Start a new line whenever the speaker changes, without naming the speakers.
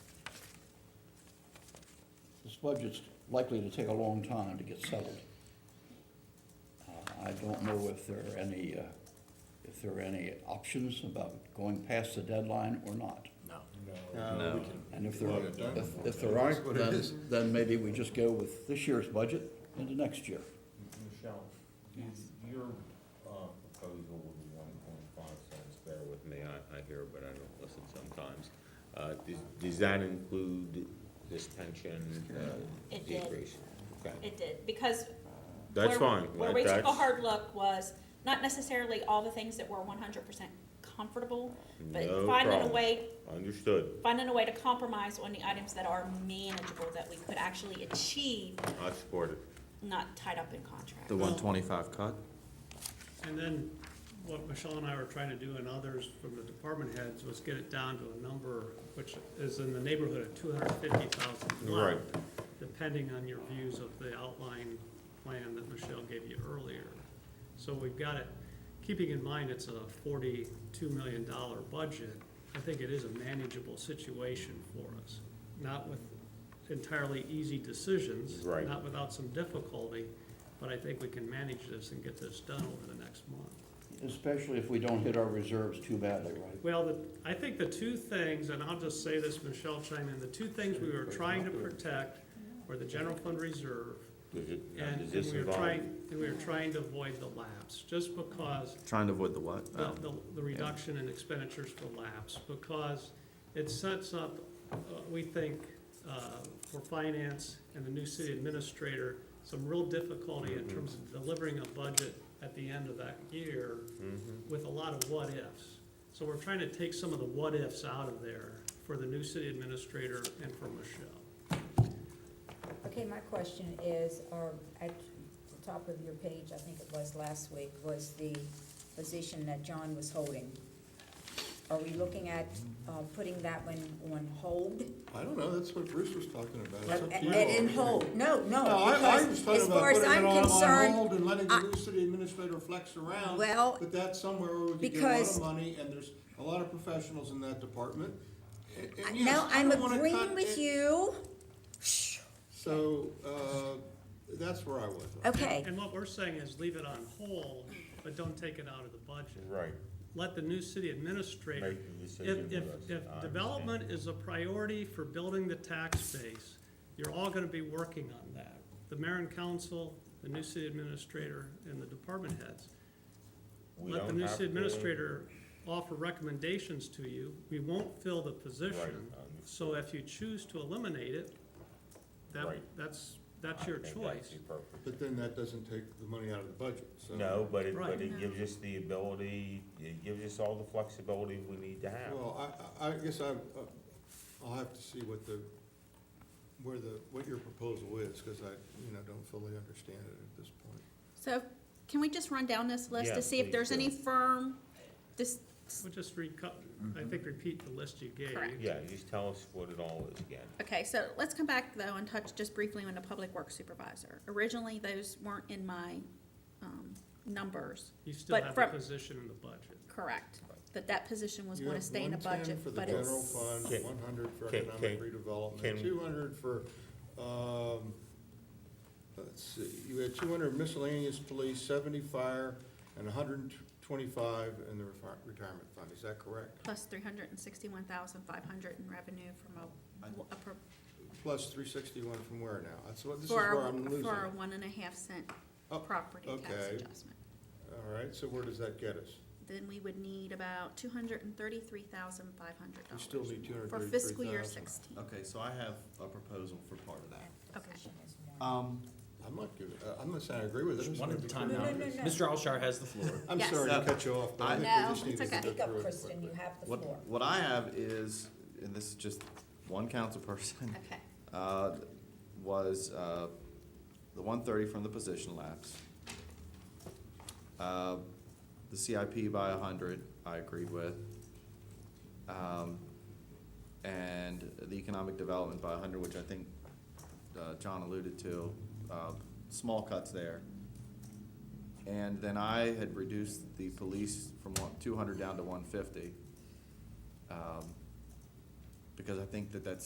budget's likely to take a long time to get settled. Uh, I don't know if there are any, uh, if there are any options about going past the deadline or not.
No.
And if there,
Well, it don't.
if, if there
That's
aren't,
what it
then,
is.
then maybe we just go with this year's budget into next year.
Michelle, is your uh, proposal with the one point five cents, bear with me, I, I hear, but I don't listen sometimes. Uh, does, does that include this pension, uh,
It did.
decrease? Okay,
It did, because. where-
that's fine.
Where we took a
That's-
hard look was not necessarily all the things that were one hundred percent comfortable, but
No
finding a
problem.
way,
Understood,
finding a way to compromise on the items that are manageable, that we could actually achieve,
I support it.
not tied up in contracts.
The one twenty-five cut?
And then what Michelle and I were trying to do and others from the department heads was get it down to a number which is in the neighborhood of two hundred fifty thousand a month, Depending on your views of the outline plan that Michelle gave you earlier. So we've got it, keeping in mind it's a forty-two million dollar budget, I think it is a manageable situation for us. Not with entirely easy decisions.
Right.
Not without some difficulty, but I think we can manage this and get this done over the next month.
Especially if we don't hit our reserves too badly, right?
Well, the, I think the two things, and I'll just say this, Michelle chime in, the two things we were trying to protect were the general fund reserve,
Does it, now,
and
does
and
this
we were
involve?
trying, and we were trying to avoid the lapse, just because
Trying to avoid the what?
the,
Oh.
the- the reduction in expenditures for lapse, because it sets up, uh, we think, uh, for finance and the new city administrator, some real difficulty
Mm-hmm.
in terms of delivering a budget at the end of that year
Mm-hmm.
with a lot of what-ifs. So we're trying to take some of the what-ifs out of there for the new city administrator and for Michelle.
Okay, my question is, or at the top of your page, I think it was last week, was the position that John was holding. Are we looking at, uh, putting that one on hold?
I don't know, that's what Bruce was talking about. It's
But,
up
and
to you all.
in hold, no, no,
No, I, I was
because
talking
as far
about
as
putting it
I'm
on, on hold
concerned,
and letting the
I-
new city administrator flex around.
Well,
But that's somewhere where we could get a lot
because-
of money, and there's a lot of professionals in that department. And- and
I-
yes,
no,
I
I'm
don't wanna
agreeing
cut
with
it.
you.
So, uh, that's where I was.
Okay,
And what we're saying is leave it on hold, but don't take it out of the budget.
Right,
Let the new city administrator
make the decision
If,
with us.
if,
I
if
understand.
development is a priority for building the tax base, you're all gonna be working on that. The mayor and council, the new city administrator, and the department heads.
We
Let the
don't
new
have
city
to-
administrator offer recommendations to you. We won't fill the
Right,
position.
um,
So if you choose to eliminate it, that,
Right.
that's, that's
I
your
think that's
choice.
appropriate.
But then that doesn't take the money out of the budget, so.
No, but it,
Right.
but it gives us the ability, it gives us all the flexibility we need to have.
Well, I, I I guess I, uh, I'll have to see what the, where the, what your proposal is, because I, you know, don't fully understand it at this point.
So can we just run down this list
Yeah,
to see if
please
there's
do.
any firm, this,
We'll just recut, I think repeat the list you gave.
Correct.
Yeah, just tell us what it all is again.
okay, so let's come back though and touch just briefly on the public works supervisor. Originally, those weren't in my, um, numbers,
You still
But
have the
from-
position in the budget.
correct? That that position was
You
wanna
have
stay in the
110
budget, but
For the general
it's,
fund,
Can-
one hundred for
can-
economic
can-
redevelopment,
can-
two hundred for, um, let's see, you had two hundred miscellaneous police, seventy fire, and hundred and twenty-five in the refi- retirement fund, is that correct?
plus three hundred and sixty-one thousand five hundred in revenue from a, a pro-
Plus three sixty-one from where now? That's what, this is
for,
where I'm
a-
losing.
for a one and a half cent
Oh,
property tax
okay.
adjustment.
All right, so where does that get us?
Then we would need about two hundred and thirty-three thousand five hundred
We
dollars.
still need two hundred
For
thirty-three thousand.
fiscal year sixteen,
Okay, so I have a proposal for part of that.
Okay.
Position is one.
Um,
I'm not giving, uh, I'm not saying I agree with it. I just
One at
wanna
a
be
time
No,
now.
no,
clear.
no, no.
Mr. Alshire has the floor.
I'm
Yes.
sorry to cut you off, but I think
No,
we just need
it's
to
okay.
get
Speak up,
through it
Kristen,
quickly.
you have the
what,
floor.
what I have is, and this is just one council person,
okay.
uh, was, uh, the one thirty from the position lapse. Uh, the CIP by hundred, I agreed with. Um, and the economic development by hundred, which I think, uh, John alluded to, uh, small cuts there. And then I had reduced the police from one, two hundred down to one fifty. Um, because I think that that's